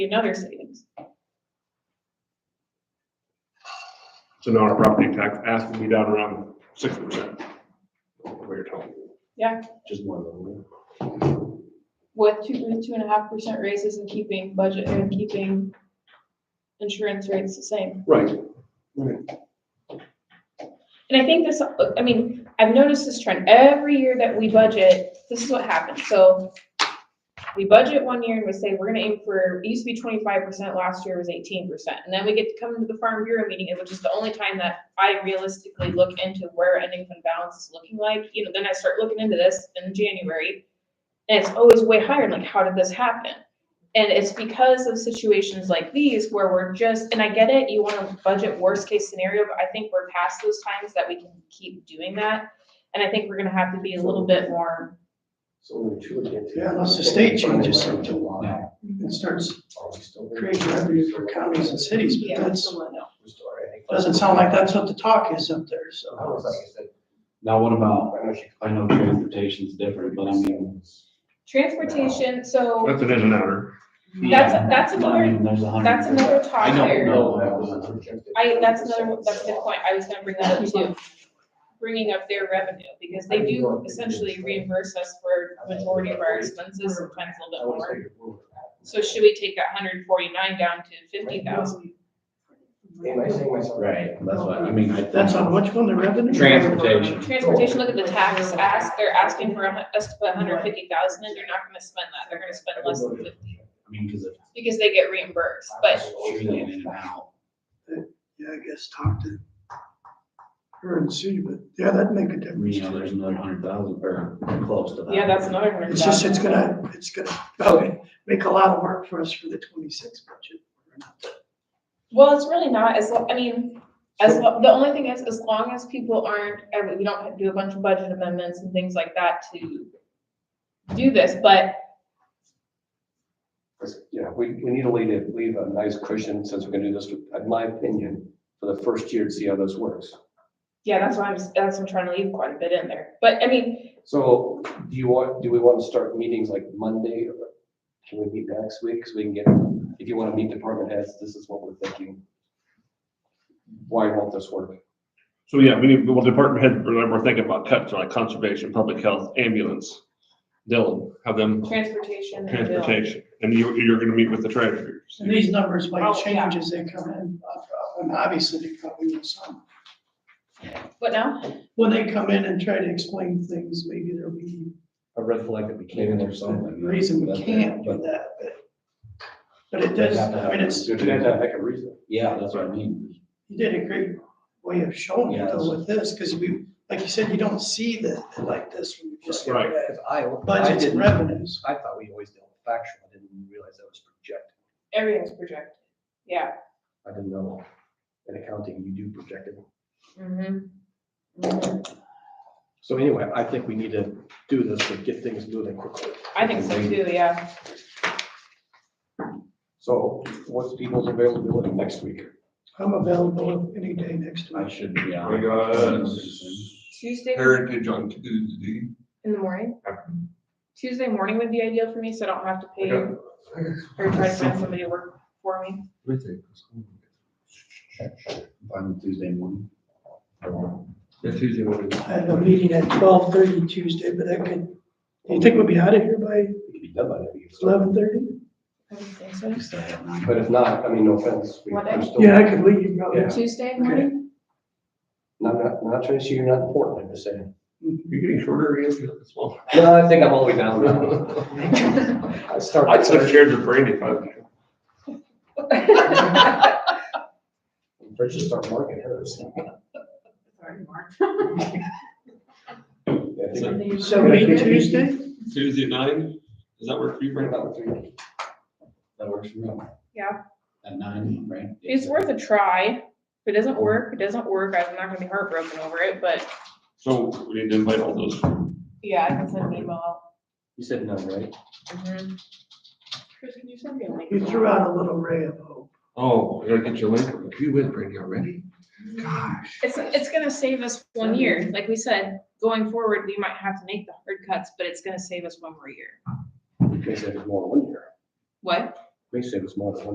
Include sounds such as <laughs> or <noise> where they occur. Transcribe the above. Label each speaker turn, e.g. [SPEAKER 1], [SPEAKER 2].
[SPEAKER 1] another savings.
[SPEAKER 2] So now our property tax has to be down around six percent. What you're telling me.
[SPEAKER 1] Yeah.
[SPEAKER 2] Just one little.
[SPEAKER 1] With two, with two and a half percent raises and keeping budget and keeping insurance rates the same.
[SPEAKER 2] Right.
[SPEAKER 1] And I think this, I mean, I've noticed this trend. Every year that we budget, this is what happens. So we budget one year and we say, we're gonna aim for, it used to be twenty-five percent, last year was eighteen percent. And then we get to come to the Farm Bureau meeting, which is the only time that I realistically look into where ending fund balance is looking like. You know, then I start looking into this in January. And it's always way higher, like, how did this happen? And it's because of situations like these where we're just, and I get it, you wanna budget worst case scenario, but I think we're past those times that we can keep doing that. And I think we're gonna have to be a little bit more,
[SPEAKER 3] So only two against.
[SPEAKER 4] Yeah, unless the state changes something and starts creating revenue for counties and cities,
[SPEAKER 1] yeah,
[SPEAKER 4] but that's,
[SPEAKER 1] someone else.
[SPEAKER 4] doesn't sound like that's what the talk is up there, so.
[SPEAKER 5] Now, what about, I know transportation's different, but I mean,
[SPEAKER 1] Transportation, so
[SPEAKER 2] That's an in and outer.
[SPEAKER 1] that's, that's
[SPEAKER 5] I
[SPEAKER 1] another,
[SPEAKER 5] mean, there's a hundred.
[SPEAKER 1] that's another
[SPEAKER 5] I
[SPEAKER 1] topic
[SPEAKER 5] don't
[SPEAKER 1] there.
[SPEAKER 5] know.
[SPEAKER 1] I, that's another, that's a good point, I was gonna bring that up too. Bringing up their revenue, because they do essentially reimburse us for majority of our expenses, sometimes a little bit more. So should we take that hundred and forty-nine down to fifty thousand?
[SPEAKER 3] Am I saying myself?
[SPEAKER 5] Right, that's what, I mean, I.
[SPEAKER 4] That's on which one, the revenue?
[SPEAKER 5] Transportation.
[SPEAKER 1] Transportation, look at the tax ask, they're asking for a hun- us to put hundred and fifty thousand and they're not gonna spend that, they're gonna spend less than fifty.
[SPEAKER 5] I mean, cause it's
[SPEAKER 1] Because they get reimbursed, but
[SPEAKER 5] usually in and out.
[SPEAKER 4] Yeah, I guess talk to her and see, but yeah, that'd make a difference.
[SPEAKER 5] You know, there's another hundred thousand or close to that.
[SPEAKER 1] yeah, that's another hundred
[SPEAKER 4] It's just,
[SPEAKER 1] thousand.
[SPEAKER 4] it's gonna, it's gonna, okay, make a lot of work for us for the twenty-six budget.
[SPEAKER 1] Well, it's really not, as, lo- I mean, as, lo- the only thing is, as long as people aren't, I mean, we don't do a bunch of budget amendments and things like that to do this, but
[SPEAKER 3] Yeah, we, we need to leave it, leave a nice cushion since we're gonna do this, in my opinion, for the first year to see how this works.
[SPEAKER 1] yeah, that's why I'm, s- that's why I'm trying to leave quite a bit in there. But I mean,
[SPEAKER 3] So do you want, do we want to start meetings like Monday? or Can we meet next week? So we can get, if you want to meet department heads, this is what we're thinking. Why won't this work?
[SPEAKER 2] So yeah, we need, well, department head, remember, we're thinking about cuts like conservation, public health, ambulance. They'll have them
[SPEAKER 1] transportation. and bill.
[SPEAKER 2] transportation and you, you're gonna meet with the treasurers.
[SPEAKER 4] And these numbers might
[SPEAKER 1] Oh, yeah.
[SPEAKER 4] change as they come in, uh, and obviously they probably will some.
[SPEAKER 1] What now?
[SPEAKER 4] When they come in and try to explain things, maybe there'll be
[SPEAKER 5] A red flag that we
[SPEAKER 3] can't
[SPEAKER 5] or
[SPEAKER 4] a reason we can't do that, but, but it does, I mean, it's,
[SPEAKER 3] You'd have to make a reason.
[SPEAKER 5] Yeah, that's what I mean.
[SPEAKER 4] you did a great way of showing it though with this, because we, like you said, you don't see the, like this when you just look
[SPEAKER 2] Right.
[SPEAKER 4] at
[SPEAKER 6] I, I
[SPEAKER 4] budgets and
[SPEAKER 6] didn't,
[SPEAKER 4] revenues.
[SPEAKER 6] I thought we always dealt with factual, I didn't realize that was projected,
[SPEAKER 1] Everything's projected, yeah.
[SPEAKER 6] I didn't know. In accounting, you do projected.
[SPEAKER 1] Mm-hmm. Mhm.
[SPEAKER 6] So anyway, I think we need to do this to get things moving quickly.
[SPEAKER 1] I think so too, yeah.
[SPEAKER 3] So what's people's availability next week?
[SPEAKER 4] I'm available any day next
[SPEAKER 5] I
[SPEAKER 4] week.
[SPEAKER 5] should, yeah.
[SPEAKER 7] We got
[SPEAKER 1] Tuesday
[SPEAKER 7] Heritage on Tuesday.
[SPEAKER 1] in the morning? Tuesday morning would be ideal for me, so I don't have to pay
[SPEAKER 7] Okay.
[SPEAKER 1] or try to find somebody to work for me.
[SPEAKER 5] On Tuesday morning.
[SPEAKER 7] Yeah, Tuesday morning.
[SPEAKER 4] I have a meeting at twelve thirty Tuesday, but I could, do you think we'll be out of here by
[SPEAKER 3] We could be done by then.
[SPEAKER 4] eleven thirty?
[SPEAKER 1] I don't think so.
[SPEAKER 3] But if not, I mean, no offense. we-
[SPEAKER 1] What
[SPEAKER 3] we're
[SPEAKER 1] day?
[SPEAKER 3] still-
[SPEAKER 4] Yeah, I could leave probably.
[SPEAKER 3] Yeah.
[SPEAKER 1] Tuesday morning?
[SPEAKER 3] Not, not, not trying to say you're not important, I'm just saying.
[SPEAKER 2] You're getting shorter again as well.
[SPEAKER 3] No, I think I'm all the way down. <laughs> I start.
[SPEAKER 2] I could have shared the brain if I.
[SPEAKER 3] First, you start marking hers. Yeah, I think
[SPEAKER 4] So meet Tuesday?
[SPEAKER 2] Tuesday at nine, does that work for you,
[SPEAKER 3] we're
[SPEAKER 2] Brandon?
[SPEAKER 3] about three.
[SPEAKER 5] That works for me.
[SPEAKER 1] Yeah.
[SPEAKER 5] At nine, right?
[SPEAKER 1] It's worth a try. If it doesn't work, it doesn't work. I'm not gonna be heartbroken over it, but
[SPEAKER 2] So we need to invite all those.
[SPEAKER 1] yeah, I can send an email out.
[SPEAKER 3] You said no, right?
[SPEAKER 1] Chris, can you send me a link?
[SPEAKER 4] You threw out a little ray of hope.
[SPEAKER 7] Oh, I gotta get your link. You with Brandy already? Gosh.
[SPEAKER 1] It's, it's gonna save us one year. Like we said, going forward, we might have to make the hard cuts, but it's gonna save us one more year.
[SPEAKER 3] Because it was more one year.
[SPEAKER 1] What?
[SPEAKER 3] May save us more than one